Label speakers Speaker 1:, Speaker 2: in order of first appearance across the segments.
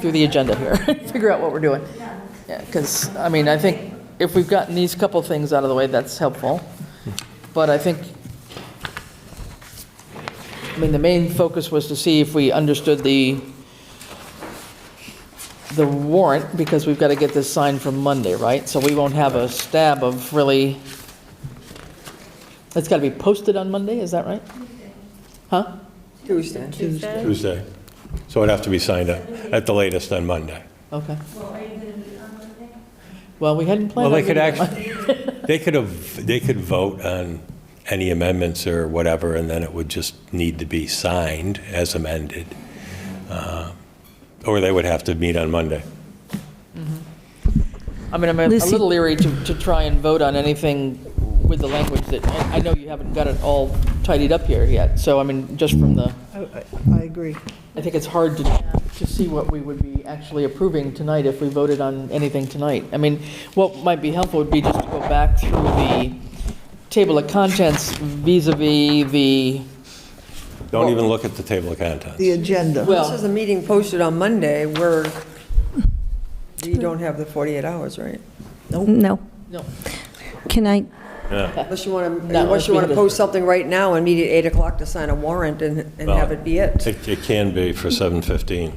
Speaker 1: through the agenda here, figure out what we're doing. Yeah, because, I mean, I think if we've gotten these couple things out of the way, that's helpful. But I think, I mean, the main focus was to see if we understood the, the warrant, because we've got to get this signed for Monday, right? So we won't have a stab of really, it's got to be posted on Monday, is that right? Huh?
Speaker 2: Tuesday.
Speaker 3: Tuesday. So it'd have to be signed up at the latest on Monday.
Speaker 1: Okay. Well, we hadn't planned
Speaker 3: Well,
Speaker 1: on
Speaker 3: they could
Speaker 1: meeting on Monday.
Speaker 3: actually, they could have, they could vote on any amendments or whatever, and then it would just need to be signed as amended. Uh, Or they would have to meet on Monday.
Speaker 1: I mean, I'm a a
Speaker 4: Lucy-
Speaker 1: little leery to, to try and vote on anything with the language that, and I know you haven't got it all tidied up here yet, so I mean, just from the,
Speaker 4: I I- I agree.
Speaker 1: I think it's hard to, to see what we would be actually approving tonight if we voted on anything tonight. I mean, what might be helpful would be just to go back through the table of contents vis a vis the,
Speaker 3: Don't even look at the table of
Speaker 4: The
Speaker 3: contents.
Speaker 4: agenda.
Speaker 1: well.
Speaker 2: This is a meeting posted on Monday, where you don't have the 48 hours, right?
Speaker 4: No.
Speaker 1: No.
Speaker 4: Can I,
Speaker 3: Yeah.
Speaker 2: Unless you want to,
Speaker 1: No,
Speaker 2: unless you
Speaker 1: we
Speaker 2: want
Speaker 1: had
Speaker 2: to
Speaker 1: a-
Speaker 2: post something right now and meet at 8 o'clock to sign a warrant and and have it be it.
Speaker 3: It it can be for 7:15.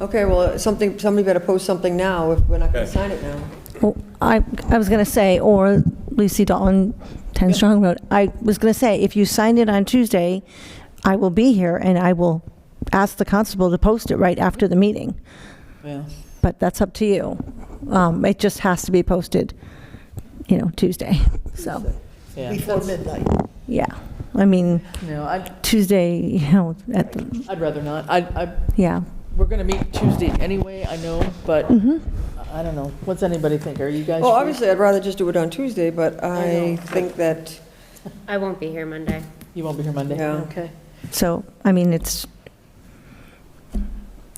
Speaker 2: Okay, well, something, somebody better post something now if we're not going to
Speaker 3: Okay.
Speaker 2: sign it now.
Speaker 5: Well, oh, I, I was going to say, or Lucy Dalton, 10 Strong Road, I was going to say, if you signed it on Tuesday, I will be here and I will ask the constable to post it right after the meeting,
Speaker 1: yeah.
Speaker 5: but that's up to you. Um, It just has to be posted, you know, Tuesday, so,
Speaker 1: yeah.
Speaker 4: before midnight.
Speaker 5: yeah. I mean,
Speaker 1: No, I'd,
Speaker 5: Tuesday, you know, at, the
Speaker 1: I'd rather not. I, I,
Speaker 5: yeah.
Speaker 1: we're going to meet Tuesday anyway, I know, but I I don't know. What's anybody think? Are you guys?
Speaker 2: Mm-hmm. Well,
Speaker 1: free?
Speaker 2: obviously, I'd rather just do it on Tuesday, but I think that,
Speaker 6: I won't be here Monday.
Speaker 1: You won't be here Monday?
Speaker 2: Yeah.
Speaker 1: Okay.
Speaker 5: So, I mean, it's,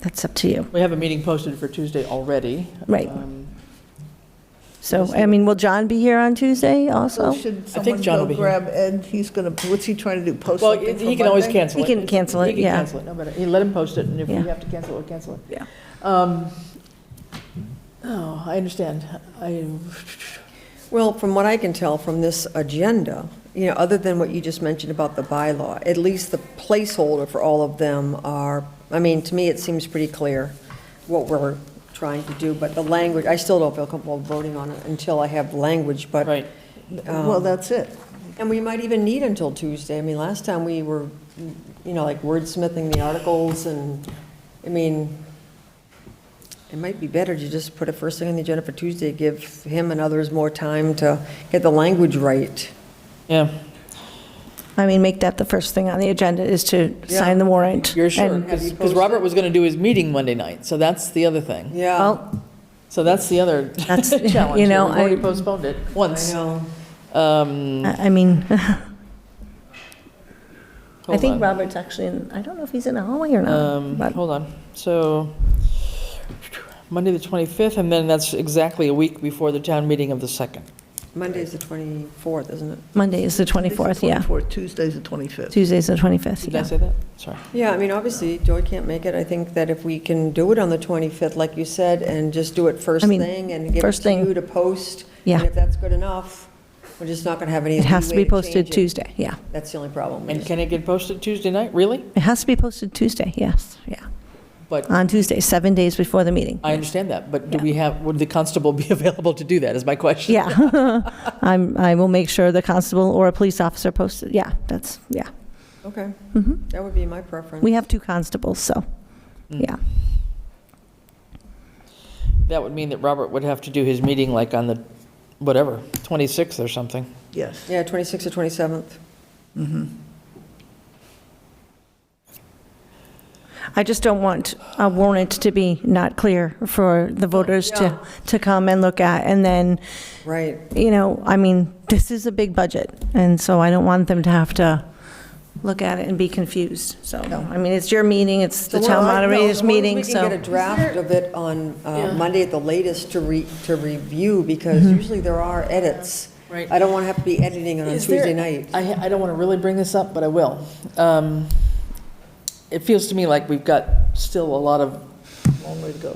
Speaker 5: that's up to you.
Speaker 1: We have a meeting posted for Tuesday already.
Speaker 5: Right.
Speaker 1: Um,
Speaker 5: So, I mean, will John be here on Tuesday also?
Speaker 1: Oh,
Speaker 4: Should
Speaker 1: I
Speaker 4: someone
Speaker 1: think John will be
Speaker 4: go
Speaker 1: here.
Speaker 4: grab Ed? He's going to, what's he trying to do, post
Speaker 1: Well,
Speaker 4: something for
Speaker 1: he can always
Speaker 4: Monday?
Speaker 1: cancel it.
Speaker 5: He can cancel it,
Speaker 1: He can
Speaker 5: yeah.
Speaker 1: cancel it, no matter, he let him post it, and if we
Speaker 5: Yeah.
Speaker 1: have to cancel it, we'll cancel it.
Speaker 5: Yeah.
Speaker 1: Um, Oh, I understand. I,
Speaker 2: well, from what I can tell from this agenda, you know, other than what you just mentioned about the bylaw, at least the placeholder for all of them are, I mean, to me, it seems pretty clear what we're trying to do, but the language, I still don't feel comfortable voting on it until I have language, but.
Speaker 1: right, Um,
Speaker 4: Well, that's it.
Speaker 2: And we might even need until Tuesday. I mean, last time we were, you know, like wordsmithing the articles and, I mean, it might be better to just put it first thing on the agenda for Tuesday, give him and others more time to get the language right.
Speaker 1: yeah.
Speaker 5: I mean, make that the first thing on the agenda is to sign the warrant.
Speaker 1: You're sure,
Speaker 5: And-
Speaker 1: because Robert was going to do his meeting Monday night, so that's the other thing.
Speaker 2: Yeah,
Speaker 5: Well,
Speaker 1: So that's the other
Speaker 5: That's-
Speaker 1: challenge.
Speaker 5: you
Speaker 1: here.
Speaker 5: know,
Speaker 1: We've already
Speaker 5: I-
Speaker 1: postponed it
Speaker 2: I
Speaker 1: once.
Speaker 2: know.
Speaker 1: Um,
Speaker 5: I I mean, I
Speaker 1: hold on.
Speaker 5: think Robert's actually in, I don't know if he's in the hallway or
Speaker 1: Um,
Speaker 5: not, but
Speaker 1: Hold on. So Monday, the 25th, and then that's exactly a week before the town meeting of the 2nd.
Speaker 2: Monday's the 24th, isn't it?
Speaker 5: Monday is the 24th, yeah.
Speaker 4: 24th, Tuesday's the 25th.
Speaker 5: Tuesday's the 25th,
Speaker 1: Did I
Speaker 5: yeah.
Speaker 1: say that? Sorry.
Speaker 2: Yeah, I mean, obviously, Joy can't make it. I think that if we can do it on the 25th, like you said, and just do it first
Speaker 5: I mean,
Speaker 2: thing and give it
Speaker 5: first
Speaker 2: to
Speaker 5: thing.
Speaker 2: you to post.
Speaker 5: Yeah.
Speaker 2: And if that's good enough, we're just not going to have any
Speaker 5: It has to
Speaker 2: leeway
Speaker 5: be posted
Speaker 2: change it.
Speaker 5: Tuesday, yeah.
Speaker 2: That's the only problem. We
Speaker 1: And
Speaker 2: just-
Speaker 1: can it get posted Tuesday night? Really?
Speaker 5: It has to be posted Tuesday, yes, yeah.
Speaker 1: But-
Speaker 5: On Tuesday, seven days before the meeting.
Speaker 1: I understand that, but do
Speaker 5: Yeah.
Speaker 1: we have, would the constable be available to do that, is my question?
Speaker 5: Yeah. I'm, I will make sure the constable or a police officer posted, yeah, that's, yeah.
Speaker 2: Okay,
Speaker 5: Mhm.
Speaker 2: that would be my preference.
Speaker 5: We have two constables, so,
Speaker 1: Mm.
Speaker 5: yeah.
Speaker 1: That would mean that Robert would have to do his meeting like on the, whatever, 26th or something.
Speaker 4: Yes.
Speaker 2: Yeah, 26th or 27th.
Speaker 5: I just don't want a warrant to be not clear for the voters to, to come and look at. And then,
Speaker 2: Right,
Speaker 5: you know, I mean, this is a big budget, and so I don't want them to have to look at it and be confused. So, I mean, it's your meeting, it's the
Speaker 2: So
Speaker 5: town
Speaker 2: we're like, no, as
Speaker 5: moderator's
Speaker 2: long as
Speaker 5: meeting,
Speaker 2: We can
Speaker 5: so.
Speaker 2: get a draft of it on uh, Monday at the latest to re, to review, because
Speaker 5: Mm-hmm.
Speaker 2: usually there are edits.
Speaker 1: Right.
Speaker 2: I don't want to have to be editing it on
Speaker 1: Is there-
Speaker 2: Tuesday night.
Speaker 1: I, I don't want to really bring this up, but I will. Um, It feels to me like we've got still a lot of
Speaker 4: Long way to go.